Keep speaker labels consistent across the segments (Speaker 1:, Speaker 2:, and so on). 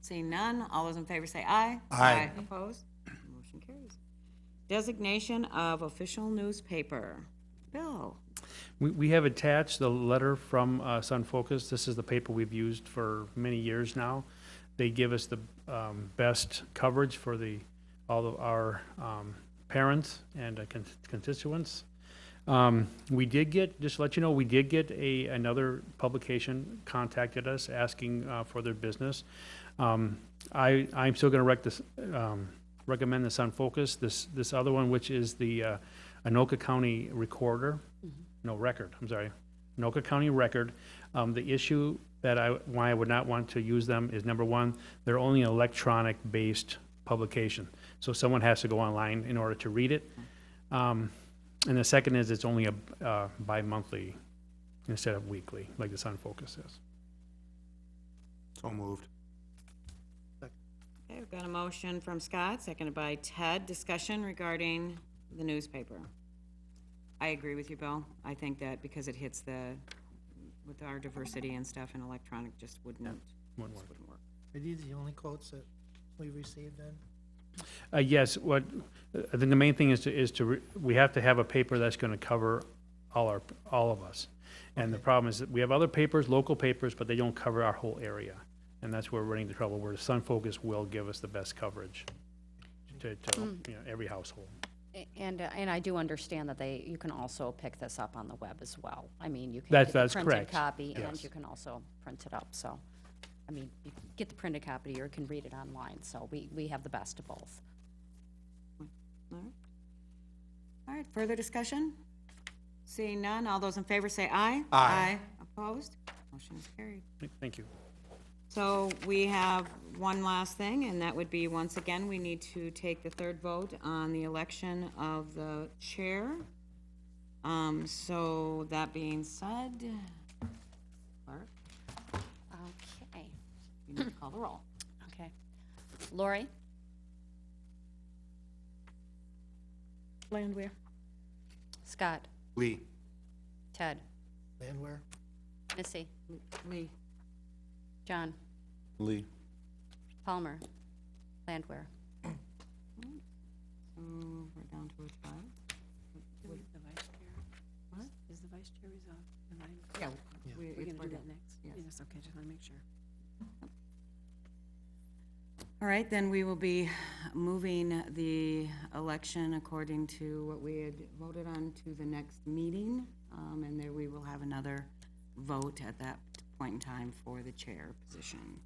Speaker 1: Seeing none, all those in favor say aye.
Speaker 2: Aye.
Speaker 1: Opposed? Motion carries. Designation of official newspaper. Bill,
Speaker 3: We, we have attached the letter from uh, Sun Focus. This is the paper we've used for many years now. They give us the um, best coverage for the, all of our um, parents and uh, con- constituents. Um, We did get, just to let you know, we did get a, another publication contacted us asking uh, for their business. Um, I, I'm still gonna rec this, um, recommend the Sun Focus, this, this other one, which is the uh, Anoka County Recorder, no, Record, I'm sorry, Anoka County Record. Um, The issue that I, why I would not want to use them is, number one, they're only an electronic-based publication, so someone has to go online in order to read it. Um, and the second is it's only a uh, bi-monthly instead of weekly, like the Sun Focus is.
Speaker 2: So moved.
Speaker 1: okay, we've got a motion from Scott, seconded by Ted, discussion regarding the newspaper. I agree with you, Bill. I think that because it hits the, with our diversity and stuff and electronic just wouldn't,
Speaker 3: Wouldn't
Speaker 1: just
Speaker 3: work.
Speaker 1: wouldn't work.
Speaker 4: Are these the only quotes that we received then?
Speaker 3: Uh, Yes, what, I think the main thing is to, is to, re- we have to have a paper that's going to cover all our, all of us. And the problem is that we have other papers, local papers, but they don't cover our whole area. And that's where we're running into trouble, where Sun Focus will give us the best coverage to, to, you know, every household.
Speaker 5: A- And, uh, and I do understand that they, you can also pick this up on the web as well. I mean, you can
Speaker 3: That-
Speaker 5: get the
Speaker 3: that's
Speaker 5: printed
Speaker 3: correct.
Speaker 5: copy, and
Speaker 3: Yes.
Speaker 5: you can also print it up, so. I mean, you can get the printed copy, or you can read it online, so we, we have the best of both.
Speaker 1: All right. All right, further discussion? Seeing none, all those in favor say aye.
Speaker 2: Aye.
Speaker 1: Opposed? Motion is carried.
Speaker 3: Thank you.
Speaker 1: So we have one last thing, and that would be, once again, we need to take the third vote on the election of the chair. Um, so that being said, clerk,
Speaker 5: Okay,
Speaker 1: you need to call the roll.
Speaker 5: okay. Lori?
Speaker 1: Landwehr.
Speaker 5: Scott?
Speaker 2: Lee.
Speaker 5: Ted?
Speaker 4: Landwehr?
Speaker 5: Missy?
Speaker 1: Lee.
Speaker 5: John?
Speaker 2: Lee.
Speaker 5: Palmer? Landwehr?
Speaker 1: So we're down to a tie.
Speaker 6: The vice chair?
Speaker 1: What?
Speaker 6: Is the vice chair resolved? Am I,
Speaker 1: Yeah.
Speaker 4: Yeah.
Speaker 1: we-
Speaker 6: we're
Speaker 1: it's-
Speaker 6: gonna do
Speaker 1: we're
Speaker 6: that next?
Speaker 1: Yes.
Speaker 6: okay, just wanna make sure.
Speaker 1: All right, then we will be moving the election according to what we had voted on to the next meeting. Um, and there we will have another vote at that point in time for the chair position.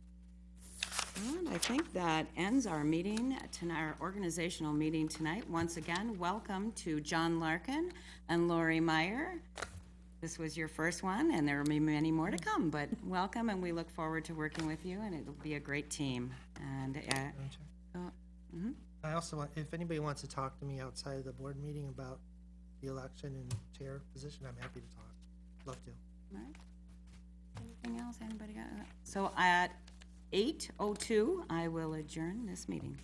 Speaker 1: And I think that ends our meeting, tonight, our organizational meeting tonight. Once again, welcome to John Larkin and Lori Meyer. This was your first one, and there will be many more to come, but welcome, and we look forward to working with you, and it'll be a great team. And, uh,
Speaker 4: Madam Chair?
Speaker 1: uh,
Speaker 4: I also want, if anybody wants to talk to me outside of the board meeting about the election and chair position, I'm happy to talk. Love to.
Speaker 1: Alright. Anything else, anybody got? So at eight oh two, I will adjourn this meeting.